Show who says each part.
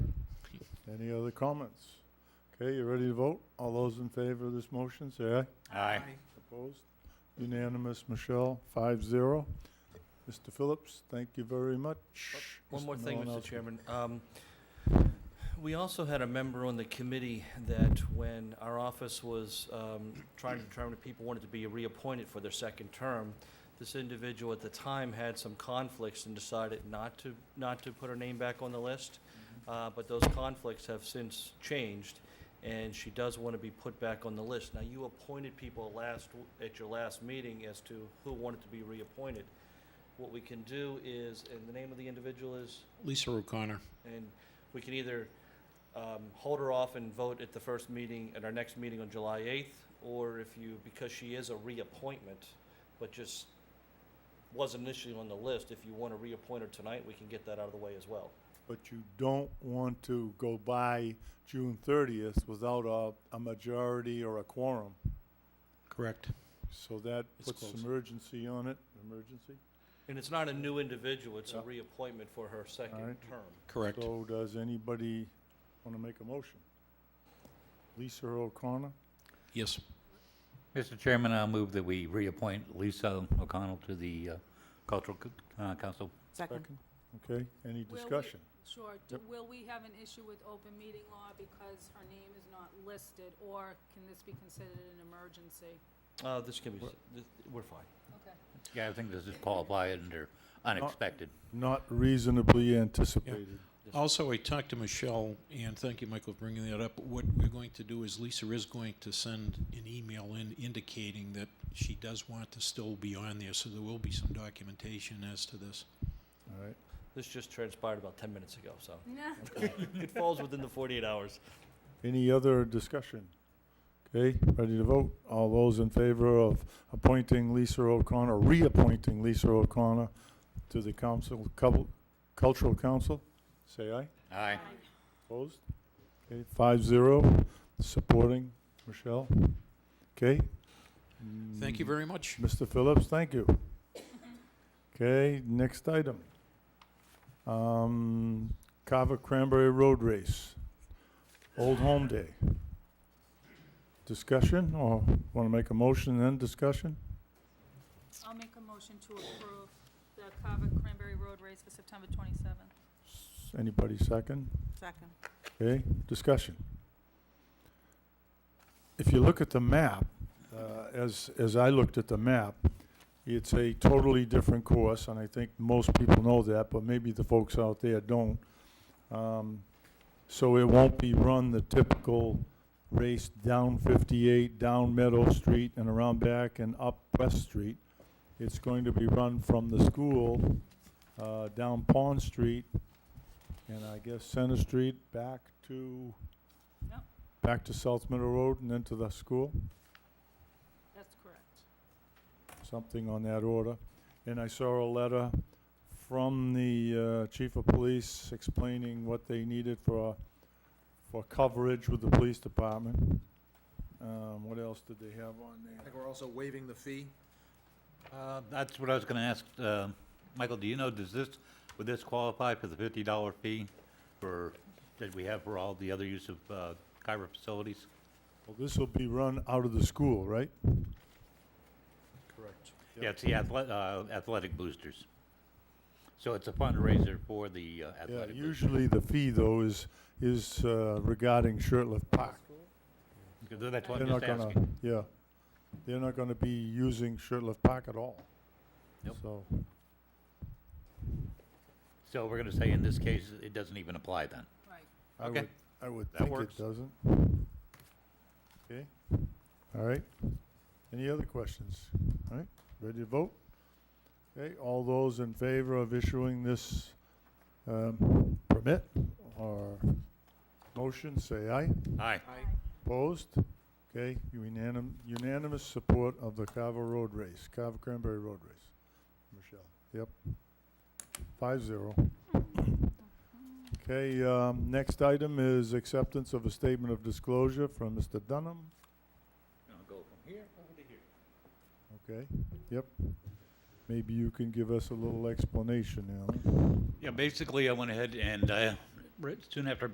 Speaker 1: Any other comments? Okay, you ready to vote? All those in favor of this motion, say aye.
Speaker 2: Aye.
Speaker 1: Opposed? Unanimous, Michelle, five zero. Mr. Phillips, thank you very much.
Speaker 3: One
Speaker 1: Mr.
Speaker 3: more thing, Mr.
Speaker 1: Malinowski.
Speaker 3: Chairman. Um, We also had a member on the committee that when our office was um, trying to determine if people wanted to be reappointed for their second term, this individual at the time had some conflicts and decided not to, not to put her name back on the list. Uh, But those conflicts have since changed, and she does want to be put back on the list. Now, you appointed people last, at your last meeting as to who wanted to be reappointed. What we can do is, and the name of the individual is?
Speaker 2: Lisa O'Connor.
Speaker 3: And we can either um, hold her off and vote at the first meeting, at our next meeting on July 8th, or if you, because she is a reappointment, but just wasn't initially on the list, if you want to reappoint her tonight, we can get that out of the way as well.
Speaker 1: But you don't want to go by June thirtieth without a, a majority or a quorum.
Speaker 2: Correct.
Speaker 1: So that
Speaker 2: It's
Speaker 1: puts
Speaker 2: close.
Speaker 1: emergency on it, emergency.
Speaker 3: And it's not a new individual, it's a
Speaker 1: Yeah.
Speaker 3: reappointment for her second
Speaker 1: Alright.
Speaker 3: term.
Speaker 2: Correct.
Speaker 1: So does anybody want to make a motion? Lisa O'Connor,
Speaker 2: Yes.
Speaker 4: Mr. Chairman, I'll move that we reappoint Lisa O'Connell to the uh, Cultural Co- uh, Council.
Speaker 5: Second.
Speaker 1: second, okay, any
Speaker 6: Will we-
Speaker 1: discussion?
Speaker 6: Sure. Do- Will we have an issue with open meeting law because her name is not listed, or can this be considered an emergency?
Speaker 3: Uh, This can be, th- we're fine.
Speaker 6: Okay.
Speaker 4: Yeah, I think this is qualified under unexpected.
Speaker 1: Not reasonably anticipated.
Speaker 2: Also, I talked to Michelle, and thank you, Michael, for bringing that up. What we're going to do is Lisa is going to send an email in indicating that she does want to still be on there, so there will be some documentation as to this.
Speaker 1: All right,
Speaker 3: This just transpired about 10 minutes ago, so
Speaker 6: No.
Speaker 3: it falls within the 48 hours.
Speaker 1: any other discussion? Okay, ready to vote? All those in favor of appointing Lisa O'Connor, reappointing Lisa O'Connor to the council, cul- cultural council, say aye.
Speaker 4: Aye.
Speaker 1: Opposed? Okay, five zero, supporting Michelle. Okay?
Speaker 2: Thank you
Speaker 1: Mm,
Speaker 2: very much.
Speaker 1: Mr. Phillips, thank you. Okay, next item. Um, Carver Cranberry Road Race, Old Home Day. Discussion, or want to make a motion and then discussion?
Speaker 6: I'll make a motion to approve the Carver Cranberry Road race for September 27th.
Speaker 1: S- Anybody second?
Speaker 5: Second.
Speaker 1: Okay, discussion. If you look at the map, uh, as, as I looked at the map, it's a totally different course, and I think most people know that, but maybe the folks out there don't. Um, So it won't be run the typical race down 58, down Meadow Street, and around back and up West Street. It's going to be run from the school, uh, down Pond Street, and I guess Center Street back to?
Speaker 6: Yep.
Speaker 1: Back to South Middle Road and then to the school,
Speaker 6: That's correct.
Speaker 1: something on that order. And I saw a letter from the uh, chief of police explaining what they needed for, for coverage with the police department. Um, What else did they have on
Speaker 7: I
Speaker 1: there?
Speaker 7: think we're also waiving the fee.
Speaker 4: Uh, That's what I was going to ask. uh, Michael, do you know, does this, would this qualify for the $50 fee for, that we have for all the other use of uh, Kyra facilities?
Speaker 1: Well, this will be run out of the school, right?
Speaker 7: Correct.
Speaker 1: Yep.
Speaker 4: Yeah, it's the athle- uh, athletic boosters. So it's a fundraiser for the uh,
Speaker 1: Yeah,
Speaker 4: athletic boosters.
Speaker 1: usually the fee though is, is uh, regarding Shirtliff Park.
Speaker 4: That's what
Speaker 1: They're
Speaker 4: I'm
Speaker 1: not
Speaker 4: just
Speaker 1: gonna,
Speaker 4: asking.
Speaker 1: Yeah, they're not gonna be using Shirtliff Park at all.
Speaker 4: Nope.
Speaker 1: So,
Speaker 4: So we're going to say in this case, it doesn't even apply then?
Speaker 6: Right.
Speaker 1: I
Speaker 4: Okay.
Speaker 1: would, I would
Speaker 4: That
Speaker 1: think
Speaker 4: works.
Speaker 1: it doesn't. Okay, all right. Any other questions? All right, ready to vote? Okay, all those in favor of issuing this, um, permit or motion, say aye.
Speaker 4: Aye.
Speaker 1: Opposed? Okay, unanim- unanimous support of the Carver Road Race, Carver Cranberry Road Race. Michelle? Yep. Five zero. Okay, um, next item is acceptance of a statement of disclosure from Mr. Dunham.
Speaker 4: I'll go from here over to here.
Speaker 1: Okay, yep. Maybe you can give us a little explanation, Alan.
Speaker 4: Yeah, basically, I went ahead and, uh, right soon after